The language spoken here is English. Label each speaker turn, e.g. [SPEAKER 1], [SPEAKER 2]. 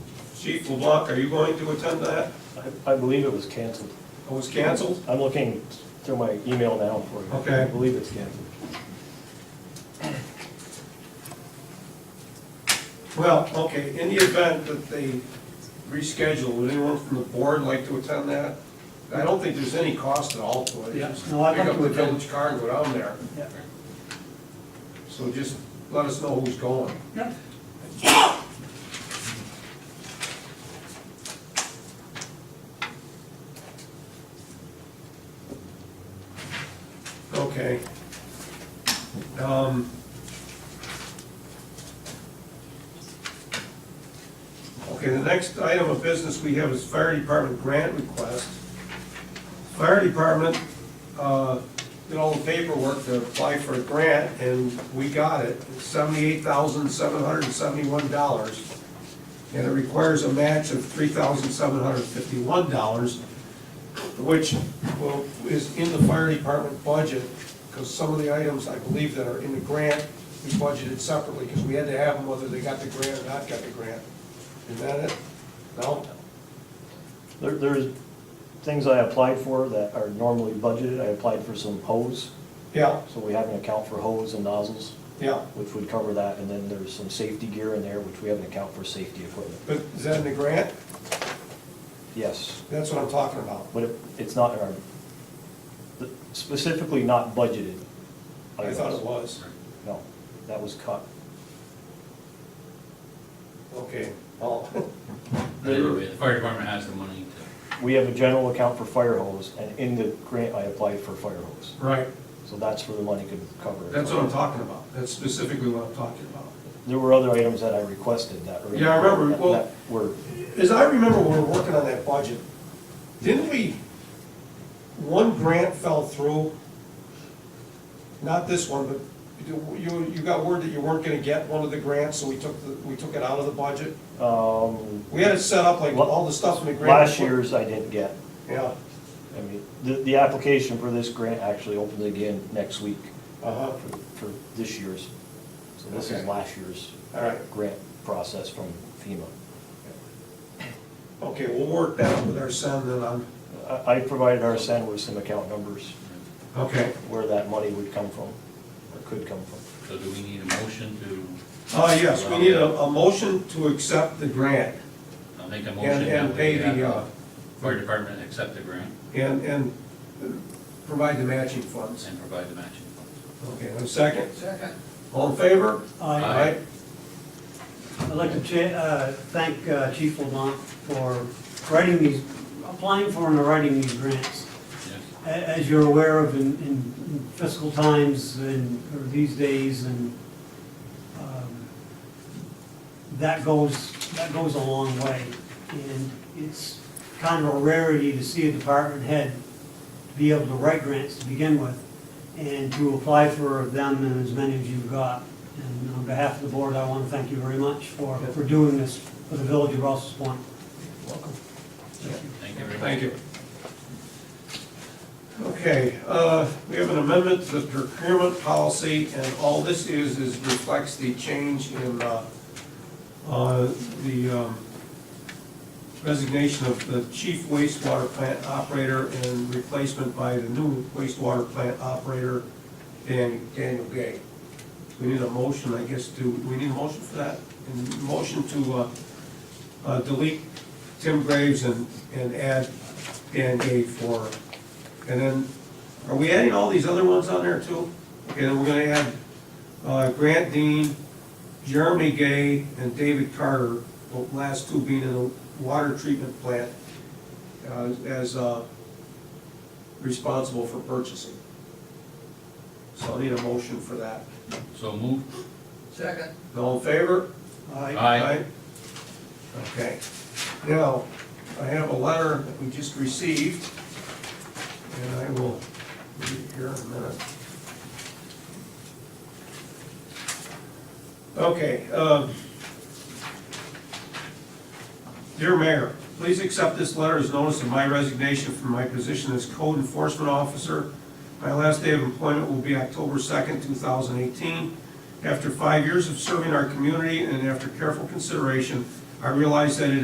[SPEAKER 1] Chief LeBlanc, are you going to attend that?
[SPEAKER 2] I I believe it was canceled.
[SPEAKER 1] It was canceled?
[SPEAKER 2] I'm looking through my email now for you.
[SPEAKER 1] Okay.
[SPEAKER 2] I believe it's canceled.
[SPEAKER 1] Well, okay, in the event that they reschedule, would anyone from the board like to attend that? I don't think there's any cost at all to it.
[SPEAKER 3] Yeah,
[SPEAKER 1] Just
[SPEAKER 3] no, I'd like
[SPEAKER 1] Pick
[SPEAKER 3] to
[SPEAKER 1] up the
[SPEAKER 3] attend.
[SPEAKER 1] village card and go down there.
[SPEAKER 3] Yeah.
[SPEAKER 1] So just let us know who's going.
[SPEAKER 3] Yeah.
[SPEAKER 1] Okay. Um. Okay, the next item of business we have is fire department grant request. Fire department, uh, did all the paperwork to apply for a grant, and we got it, seventy-eight thousand, seven hundred and seventy-one dollars. And it requires a match of three thousand, seven hundred and fifty-one dollars, which will, is in the fire department budget, because some of the items, I believe, that are in the grant, we budgeted separately, because we had to have them whether they got the grant or not got the grant. Is that it? No?
[SPEAKER 2] There, there's things I applied for that are normally budgeted. I applied for some hose,
[SPEAKER 1] Yeah,
[SPEAKER 2] so we have an account for hose and nozzles,
[SPEAKER 1] yeah,
[SPEAKER 2] which would cover that, and then there's some safety gear in there, which we have an account for safety equipment.
[SPEAKER 1] but is that in the grant?
[SPEAKER 2] Yes,
[SPEAKER 1] That's what I'm talking about.
[SPEAKER 2] but it, it's not, in our specifically not budgeted. Oh,
[SPEAKER 1] I thought it was.
[SPEAKER 2] No, that was cut.
[SPEAKER 1] Okay, oh,
[SPEAKER 4] The fire department has the money to,
[SPEAKER 2] We have a general account for fire hose, and in the grant, I applied for fire hose.
[SPEAKER 1] right,
[SPEAKER 2] So that's where the money could cover it.
[SPEAKER 1] that's what I'm talking about. That's specifically what I'm talking about.
[SPEAKER 2] There were other items that I requested that were.
[SPEAKER 1] Yeah, I remember.
[SPEAKER 2] that-
[SPEAKER 1] Well-
[SPEAKER 2] that Were,
[SPEAKER 1] As I remember, when we were working on that budget, didn't we, one grant fell through? Not this one, but you, you you got word that you weren't gonna get one of the grants, so we took, the- we took it out of the budget?
[SPEAKER 2] um,
[SPEAKER 1] We had it set up like all the stuff in the grant.
[SPEAKER 2] last year's I didn't get.
[SPEAKER 1] Yeah,
[SPEAKER 2] I mean, the, the application for this grant actually opens again next week
[SPEAKER 1] uh-huh,
[SPEAKER 2] for, for this year's. So this is
[SPEAKER 1] Okay.
[SPEAKER 2] last year's
[SPEAKER 1] all right.
[SPEAKER 2] grant process from FEMA.
[SPEAKER 1] Okay, we'll work that out with our son then on,
[SPEAKER 2] I, I provided our send with some account numbers
[SPEAKER 1] okay.
[SPEAKER 2] where that money would come from, or could come from.
[SPEAKER 4] so do we need a motion to?
[SPEAKER 1] Uh, yes, we need a, a motion to accept the grant
[SPEAKER 4] I'll make a motion.
[SPEAKER 1] and, and
[SPEAKER 4] that
[SPEAKER 1] pay
[SPEAKER 4] we have
[SPEAKER 1] the, uh,
[SPEAKER 4] Fire department accept the grant
[SPEAKER 1] and, and provide the matching funds.
[SPEAKER 4] and provide the matching funds.
[SPEAKER 1] Okay, and a second? Second. All in favor?
[SPEAKER 3] I'd
[SPEAKER 4] Aye.
[SPEAKER 3] Uh, like to cha- uh, thank uh, Chief Lamont for writing these, applying for and writing these grants.
[SPEAKER 4] Yes.
[SPEAKER 3] A- As you're aware of in- in fiscal times and, or these days, and um, that goes, that goes a long way. And it's kind of a rarity to see a department head be able to write grants to begin with and to apply for them and as many as you've got. And on behalf of the board, I want to thank you very much for, for doing this for the village of Rouse's Point.
[SPEAKER 1] Welcome.
[SPEAKER 4] Thank you very much.
[SPEAKER 1] Thank you. Okay, uh, we have an amendment to the procurement policy, and all this is, is reflects the change in uh, uh, the um, resignation of the chief wastewater plant operator and replacement by the new wastewater plant operator, Dan- Daniel Gay. We need a motion, I guess, to, we need a motion for that? And motion to uh, uh, delete Tim Graves and, and add Dan Gay for, and then, are we adding all these other ones on there too? Okay, then we're gonna add, uh, Grant Dean, Jeremy Gay, and David Carter, the last two being in the water treatment plant, uh, as, uh, responsible for purchasing. So I need a motion for that.
[SPEAKER 4] So move.
[SPEAKER 5] Second.
[SPEAKER 1] All in favor?
[SPEAKER 4] Aye.
[SPEAKER 1] Okay. Now, I have a letter that we just received, and I will read it here in a minute. Okay. um, Dear Mayor, please accept this letter as notice of my resignation from my position as code enforcement officer. My last day of employment will be October 2nd, 2018. After five years of serving our community and after careful consideration, I realize that it